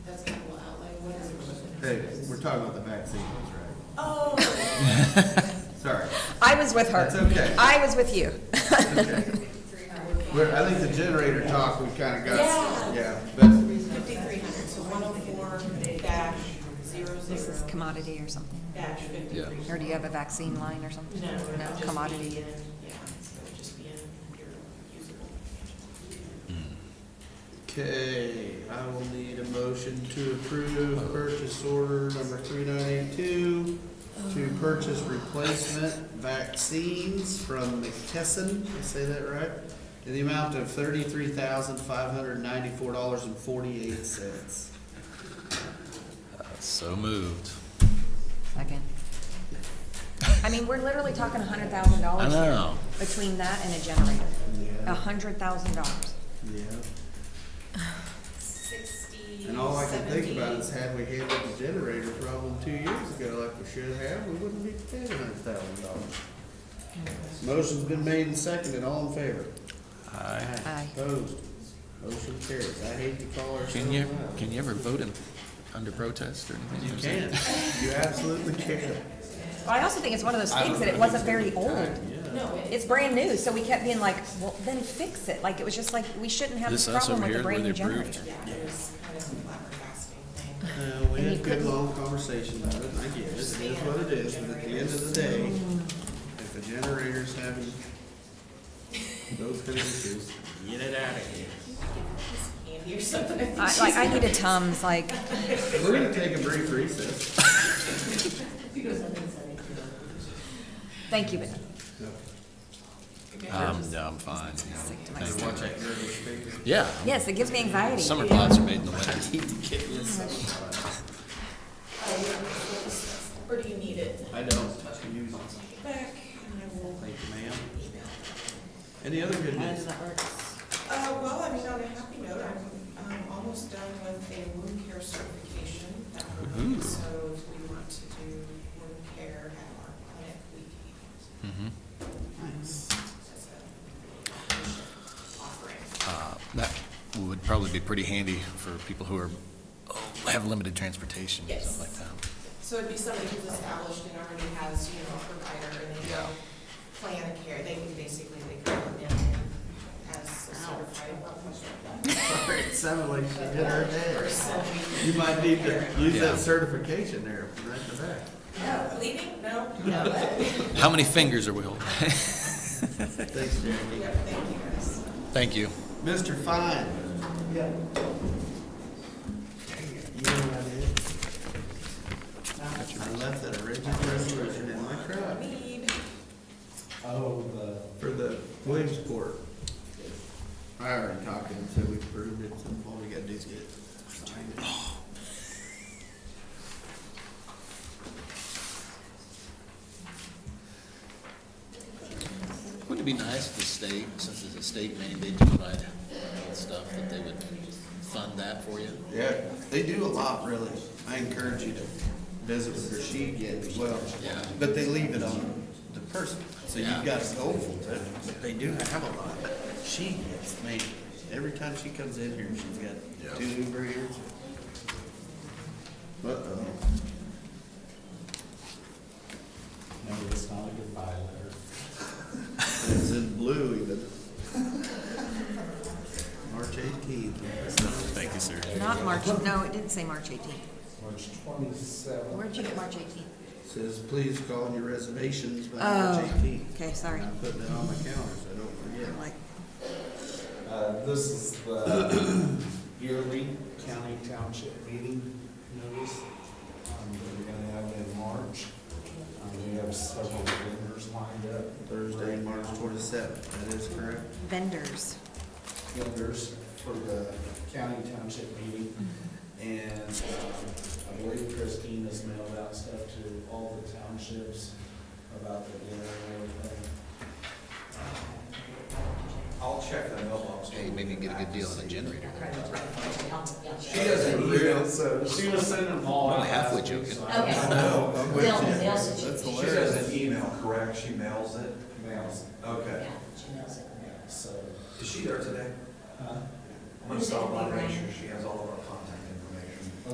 Hey, we're talking about the vaccines, right? Oh, Sorry. I was with her. That's okay. I was with you. Okay. We're- I think the generator talk, we kind of got, Yeah. yeah, but, fifty-three hundred, so one oh four dash zero This is zero commodity or something? dash fifty-three. Or do you have a vaccine line or something? No, it would just be commodity. in- Yeah, so it would just be in your usable. okay, I will need a motion to approve purchase order number three nine eight two to purchase replacement vaccines from McKesson, did I say that right? In the amount of thirty-three thousand, five hundred ninety-four dollars and forty-eight cents. So moved. Second. I mean, we're literally talking a hundred thousand I dollars here know. between that and a generator. A Yeah, hundred thousand dollars. yeah. Sixty, And all I can think seventy. about is had we handled the generator problem two years ago like we should have, we wouldn't be paying hundred thousand dollars. Motion's been made and seconded, all in favor? Aye. Aye. Opposed? Motion carries. I hate to call ourselves Can you, out. can you ever vote in, under protest or anything? You can. You absolutely can. But I also think it's one of those things that it wasn't very old. No, it- It's brand new, so we kept being like, well, then fix it. Like, it was just like, we shouldn't have this This us problem over with a here, where brand they new approved. generator. yeah, it was kind of a flabbergasting thing. Uh, we had And you a good couldn't- long conversation about it, and I get it, it is what it is, but at the end of the day, if the generator's having those kind of issues, get it out of here. Andy or something. I think I, like, I need a Tums, like, We're gonna take a brief recess. thank you, but Um, no, I'm fine. sick to my Thank you. stomach. Yeah. Yes, it gives me anxiety. Summer plots are made in the winter. Or do you need it? I don't. Use Take it back and I will Thank you, ma'am. email. Any other good news? Uh, well, I mean, on a happy note, I'm, um almost done with a wound care certification. Um, Ooh. So we want to do wound care at our clinic weekend. Mhm. Nice. That's a offering. Uh, That would probably be pretty handy for people who are, oh, have limited transportation, Yes. something like that. So it'd be somebody who's established and already has, you know, a provider and they go plan a care. They can basically, they can come in as a certified Sorry, It sounded like she did her day. person. You might need to use Yeah. that certification there, right to back. No, leaving? No? How many fingers are we holding? Thanks, Jeremy. Yeah, thank you guys. Thank you. Mr. Fine. Yeah. You know what it is? I left that original resolution in my truck Need. Oh, the, for the Williamsport. I already talked to him, so we approved it, so all we gotta do is get it signed. Wouldn't it be nice if the state, since it's a state mandate to provide stuff, that they would fund that for you? Yeah, they do a lot, really. I encourage you to visit with her. She did as well. Yeah. But they leave it on the person, so you've Yeah. got to go for it. But They do have a lot. She gets, man, every time she comes in here, she's got two new breeders. Uh-oh. no, it's not a goodbye letter. It's in blue even. March eighteenth. Thank you, sir. Not March, no, it didn't say March 18th. March twenty-seventh. Where'd you get March 18th? Says, please call in your reservations by March Oh, eighteenth. okay, sorry. I'm putting it on my calendar so I don't forget. I'm like, Uh, this is the yearly county township meeting notice, um, that we're gonna have in March. Um, we have several vendors lined up. Thursday, March twenty-seventh, that is correct. vendors. Vendors for the county township meeting. And, um, I believe Christine has mailed out stuff to all the townships about the dinner and everything. I'll check the mailbox. Hey, maybe you can get a good deal on a generator. She doesn't read it, so she was sending them all. I'm out only halfway last week, joking. so I don't Okay. know. I'm with They'll- you. they'll- That's she She has an hilarious. email, Correct, she mails it. mails, Okay. Yeah, she knows it. yeah, so. Is she there today? huh? I'm gonna stop by and make sure she has all of our